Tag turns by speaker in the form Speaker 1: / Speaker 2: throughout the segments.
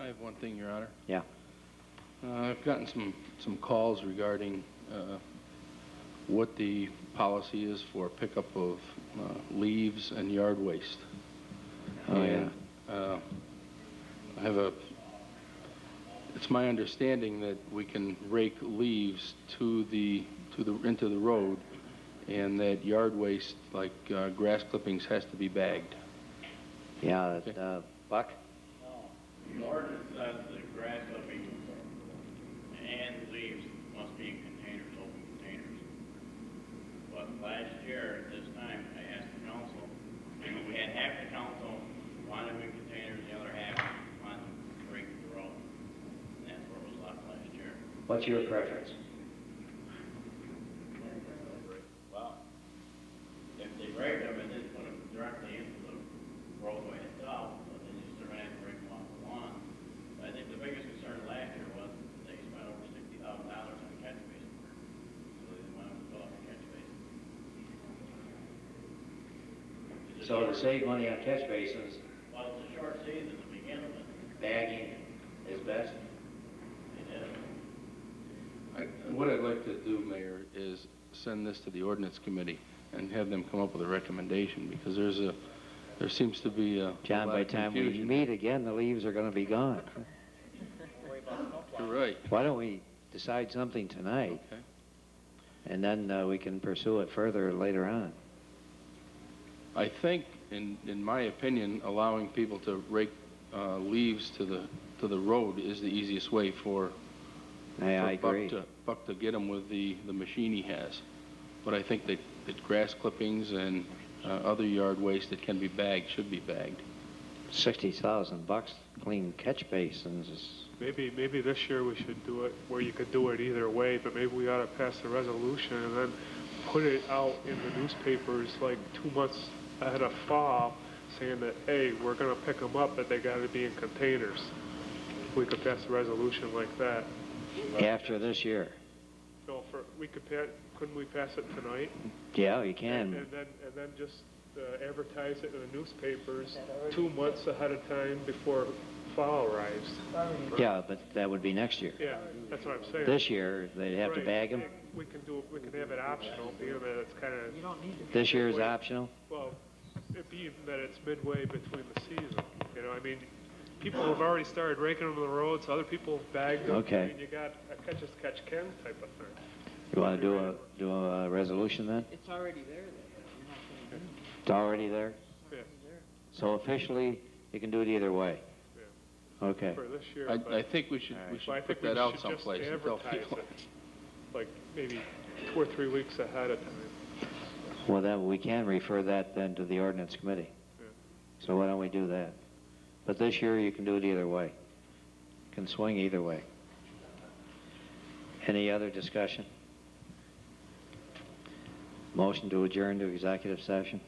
Speaker 1: I have one thing, Your Honor.
Speaker 2: Yeah.
Speaker 1: Uh, I've gotten some, some calls regarding uh, what the policy is for pickup of uh, leaves and yard waste.
Speaker 2: Oh, yeah.
Speaker 1: And, uh, I have a, it's my understanding that we can rake leaves to the, to the, into the road, and that yard waste, like uh, grass clippings, has to be bagged.
Speaker 2: Yeah,
Speaker 1: Okay.
Speaker 2: uh, Buck?
Speaker 3: Larger size of the grass clipping and leaves must be in containers, open containers. But last year, at this time, I asked the council, we had half the council wanted them in containers, the other half wanted them straight to the road. And that's where it was left last year.
Speaker 2: What's your preference?
Speaker 3: Well, if they break them and just put them directly into the roadway itself, but then just they're gonna have to break them off the lawn. I think the biggest concern last year was they spent over sixty thousand dollars on catch basin. So they didn't want to fill up the catch basin. It's a
Speaker 2: So to
Speaker 3: short-
Speaker 2: save money on catch basins,
Speaker 3: Well, it's a short season to begin with.
Speaker 2: bagging is best?
Speaker 3: They did it.
Speaker 1: I- What I'd like to do, Mayor, is send this to the ordinance committee and have them come up with a recommendation, because there's a, there seems to be a a
Speaker 2: John,
Speaker 1: lot
Speaker 2: by the
Speaker 1: of
Speaker 2: time we
Speaker 1: confusion.
Speaker 2: meet again, the leaves are gonna be gone.
Speaker 1: You're right.
Speaker 2: Why don't we decide something tonight,
Speaker 1: Okay.
Speaker 2: and then uh, we can pursue it further later on?
Speaker 1: I think, in, in my opinion, allowing people to rake uh, leaves to the, to the road is the easiest way for
Speaker 2: I, I
Speaker 1: for Buck
Speaker 2: agree.
Speaker 1: to- Buck to get them with the, the machine he has. But I think that, that grass clippings and uh, other yard waste that can be bagged should be bagged.
Speaker 2: Sixty thousand bucks clean catch basins is,
Speaker 4: Maybe, maybe this year we should do it where you could do it either way, but maybe we ought to pass the resolution and then put it out in the newspapers like two months ahead of fall, saying that, hey, we're gonna pick them up, but they gotta be in containers. We could pass a resolution like that.
Speaker 2: after this year.
Speaker 4: No, for, we could pa, couldn't we pass it tonight?
Speaker 2: Yeah, you
Speaker 4: And
Speaker 2: can.
Speaker 4: and then, and then just uh, advertise it in the newspapers two months ahead of time before fall arrives.
Speaker 2: Yeah, but that would be next year.
Speaker 4: Yeah, that's what I'm saying.
Speaker 2: This year, they'd have to
Speaker 4: Right.
Speaker 2: bag them.
Speaker 4: We can do, we can have it optional, being that it's kind of,
Speaker 2: This year is optional?
Speaker 4: well, it being that it's midway between the season, you know, I mean, people have already started raking them on the roads, other people have bagged them.
Speaker 2: Okay.
Speaker 4: I mean, you got a catch as catch can type of thing.
Speaker 2: You wanna do a, do a resolution then?
Speaker 5: It's already there, then.
Speaker 2: It's already there?
Speaker 4: Yeah.
Speaker 2: So officially, you can do it either way? Okay.
Speaker 4: For this year, but.
Speaker 1: I, I think we should, we
Speaker 4: but I
Speaker 1: should
Speaker 4: think
Speaker 1: put
Speaker 4: we
Speaker 1: that out
Speaker 4: should just
Speaker 1: someplace and tell
Speaker 4: advertise
Speaker 1: people.
Speaker 4: it, Like, maybe two or three weeks ahead of time.
Speaker 2: Well, then, we can refer that then to the ordinance committee.
Speaker 4: Yeah.
Speaker 2: So why don't we do that? But this year, you can do it either way. Can swing either way. Any other discussion? Motion to adjourn to executive session.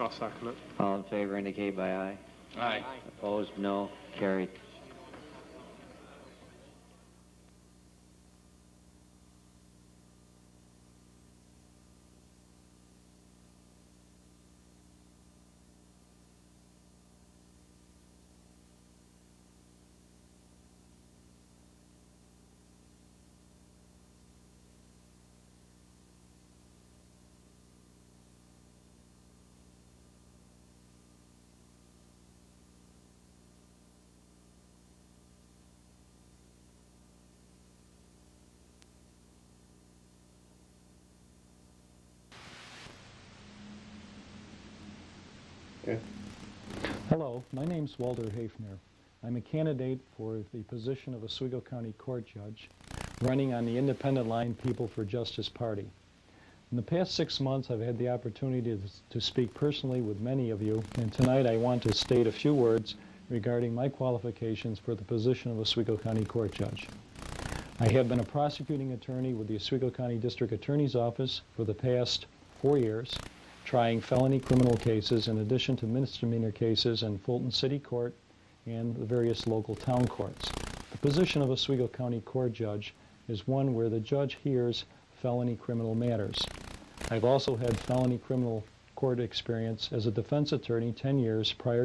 Speaker 4: I'll second it.
Speaker 2: All in favor indicate by aye.
Speaker 1: Aye.
Speaker 2: Opposed, no. Carried.
Speaker 6: Hello, my name's Walter Hafner. I'm a candidate for the position of Oswego County Court Judge, running on the independent line People for Justice Party. In the past six months, I've had the opportunity to, to speak personally with many of you, and tonight I want to state a few words regarding my qualifications for the position of Oswego County Court Judge. I have been a prosecuting attorney with the Oswego County District Attorney's Office for the past four years, trying felony criminal cases in addition to misdemeanor cases in Fulton City Court and the various local town courts. The position of Oswego County Court Judge is one where the judge hears felony criminal matters. I've also had felony criminal court experience as a defense attorney 10 years prior